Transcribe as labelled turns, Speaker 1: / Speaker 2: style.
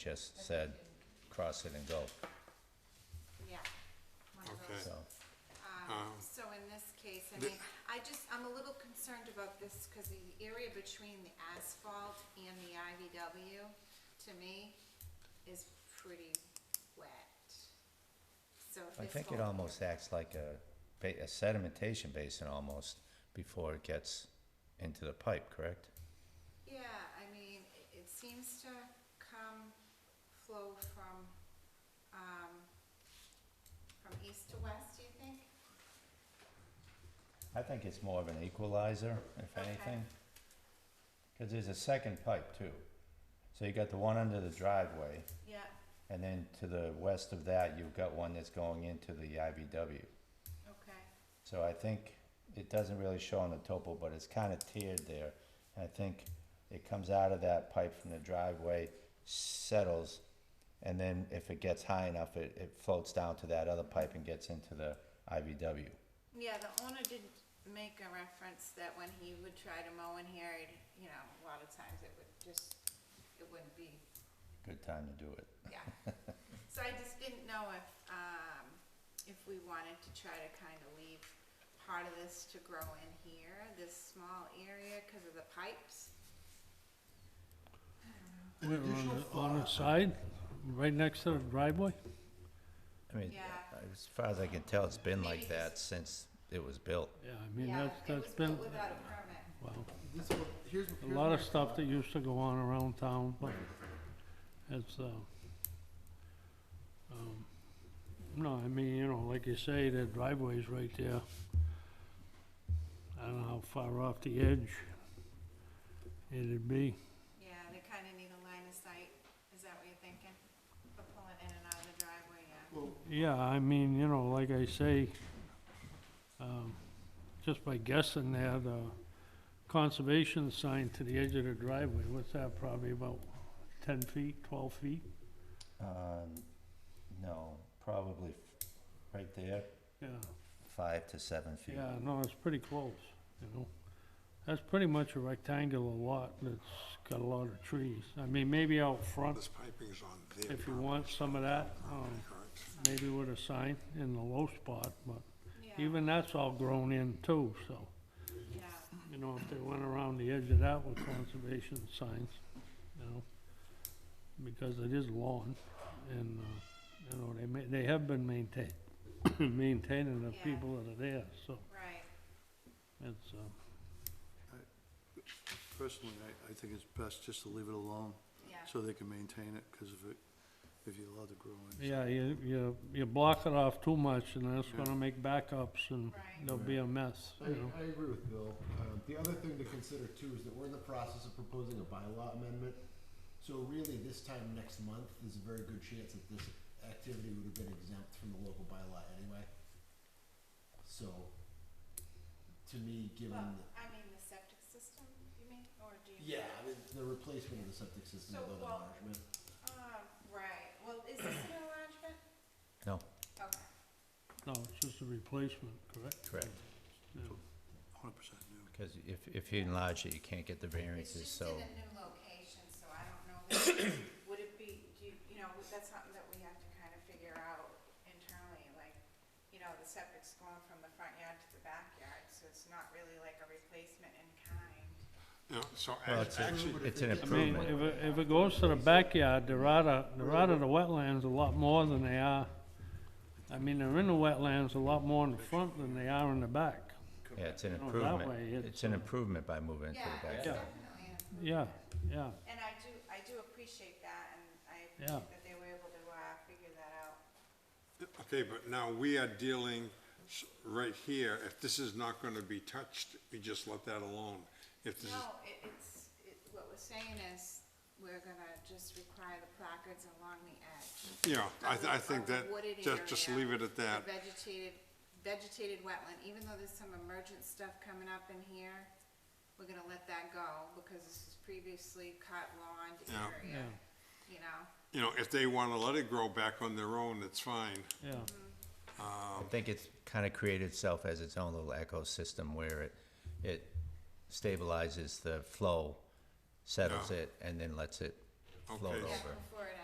Speaker 1: just said, cross it and go,
Speaker 2: Yeah. one of
Speaker 3: Okay.
Speaker 2: those.
Speaker 1: so.
Speaker 2: Um, So in this case, I mean, I just, I'm a little concerned about this because the area between the asphalt and the IVW, to me, is pretty wet. So if
Speaker 1: I
Speaker 2: this
Speaker 1: think it um,
Speaker 2: whole-
Speaker 1: almost acts like a ba- a sedimentation basin almost before it gets into the pipe, correct?
Speaker 2: Yeah, I mean, i- it seems to come, flow from, um, from east to west, do you think?
Speaker 1: I think it's more of an equalizer, if
Speaker 2: Okay.
Speaker 1: anything. Cause there's a second pipe too. So you got the one under the driveway,
Speaker 2: Yeah,
Speaker 1: and then to the west of that, you've got one that's going into the IBW.
Speaker 2: okay.
Speaker 1: So I think it doesn't really show on the topo, but it's kinda tiered there. And I think it comes out of that pipe from the driveway, settles, and then if it gets high enough, it, it floats down to that other pipe and gets into the IVW.
Speaker 2: Yeah, the owner did make a reference that when he would try to mow in here, he'd, you know, a lot of times it would just, it wouldn't be,
Speaker 1: Good time to do it.
Speaker 2: yeah. So I just didn't know if, um, if we wanted to try to kind of leave part of this to grow in here, this small area, cause of the pipes.
Speaker 4: Wait, on the- On the side, right next to the driveway?
Speaker 1: I mean,
Speaker 2: Yeah.
Speaker 1: as far as I can tell, it's been like
Speaker 2: Maybe
Speaker 1: that since it was built.
Speaker 4: Yeah, I mean,
Speaker 2: Yeah,
Speaker 4: that's,
Speaker 2: it
Speaker 4: that's
Speaker 2: was built
Speaker 4: been,
Speaker 2: without a permit.
Speaker 4: wow.
Speaker 3: This is what- here's-
Speaker 4: A
Speaker 3: here's
Speaker 4: lot
Speaker 3: my
Speaker 4: of stuff
Speaker 3: thought.
Speaker 4: that used to go on around town, but it's, uh, um, no, I mean, you know, like you say, the driveway's right there. I don't know how far off the edge it'd be.
Speaker 2: Yeah, they kinda need a line of sight, is that what you're thinking? For pulling in and out of the driveway, yeah.
Speaker 3: Well,
Speaker 4: Yeah, I mean, you know, like I say, um, just by guessing there, the conservation sign to the edge of the driveway, what's that, probably about ten feet, twelve feet?
Speaker 1: Um, no, probably f- right there,
Speaker 4: Yeah,
Speaker 1: five to seven feet.
Speaker 4: yeah, no, it's pretty close, you know? That's pretty much a rectangular lot that's got a lot of trees. I mean, maybe out front,
Speaker 3: this piping is on there.
Speaker 4: if you want some of that, um,
Speaker 3: Correct.
Speaker 4: maybe with a sign in the low spot, but
Speaker 2: Yeah,
Speaker 4: even that's all grown in too, so.
Speaker 2: yeah.
Speaker 4: you know, if they went around the edge of that with conservation signs, you know, because it is lawn, and, uh, you know, they ma- they have been maintained, maintaining the
Speaker 2: Yeah.
Speaker 4: people that are there, so
Speaker 2: Right,
Speaker 4: it's, uh,
Speaker 3: Personally, I, I think it's best just to leave it alone,
Speaker 2: yeah.
Speaker 3: so they can maintain it, because if it, if you allow it to grow in.
Speaker 4: yeah, you, you, you block it off too much, and that's
Speaker 3: Yeah.
Speaker 4: gonna make backups, and
Speaker 2: Right.
Speaker 4: there'll be a mess,
Speaker 5: I,
Speaker 4: you know?
Speaker 5: I agree with Bill. Um, the other thing to consider too is that we're in the process of proposing a bylaw amendment. So really, this time next month, there's a very good chance that this activity would have been exempt from the local bylaw anyway. So, to me, given,
Speaker 2: Well,
Speaker 5: that-
Speaker 2: I mean, the septic system, you mean, or do you?
Speaker 5: yeah, I mean, the replacement of the septic system,
Speaker 2: So,
Speaker 5: although the
Speaker 2: well-
Speaker 5: enlargement.
Speaker 2: Um, right, well, is this an enlargement?
Speaker 1: No,
Speaker 2: Okay,
Speaker 4: No, it's just a replacement, correct?
Speaker 1: correct.
Speaker 4: Yeah.
Speaker 3: Hundred percent new.
Speaker 1: Because if, if you enlarge it, you can't get the
Speaker 2: it's
Speaker 1: variances,
Speaker 2: just
Speaker 1: so.
Speaker 2: in a new location, so I don't know, that- would it be, do you, you know, that's something that we have to kind of figure out internally, like, you know, the septic's going from the front yard to the backyard, so it's not really like a replacement in kind.
Speaker 3: Yeah, so
Speaker 1: Well, it's, a-
Speaker 3: act- actually,
Speaker 1: it's an
Speaker 4: I mean,
Speaker 1: improvement.
Speaker 4: if it, if it goes to the backyard, they're out of, they're out of the wetlands a lot more than they are. I mean, they're in the wetlands a lot more in the front than they are in the back.
Speaker 1: Yeah, it's an
Speaker 4: that
Speaker 1: improvement.
Speaker 4: way
Speaker 1: It's
Speaker 4: it's,
Speaker 1: an
Speaker 4: uh,
Speaker 1: improvement by moving into the
Speaker 2: Yeah, it's
Speaker 1: backyard.
Speaker 2: definitely an improvement.
Speaker 4: Yeah, yeah,
Speaker 2: And I do, I do appreciate that, and I
Speaker 4: Yeah.
Speaker 2: appreciate that they were able to, uh, figure that out.
Speaker 6: Okay, but now we are dealing s- right here, if this is not gonna be touched, we just let that alone. If this is,
Speaker 2: No, it, it's, it, what we're saying is, we're gonna just require the placards along the edge.
Speaker 6: yeah, I, th- I
Speaker 2: of
Speaker 6: think
Speaker 2: the
Speaker 6: that,
Speaker 2: wooded
Speaker 6: just, just
Speaker 2: area,
Speaker 6: leave it at
Speaker 2: the
Speaker 6: that.
Speaker 2: Vegetated, vegetated wetland, even though there's some emergent stuff coming up in here, we're gonna let that go, because this is previously cut lawn
Speaker 6: Yeah.
Speaker 2: area, you know?
Speaker 6: You know, if they wanna let it grow back on their own, it's fine.
Speaker 4: yeah.
Speaker 1: I think it's kind of created itself as its own little ecosystem where it, it stabilizes the flow, settles
Speaker 6: Yeah.
Speaker 1: it, and then lets it float
Speaker 6: Okay.
Speaker 1: over.
Speaker 6: Yeah.
Speaker 2: Before it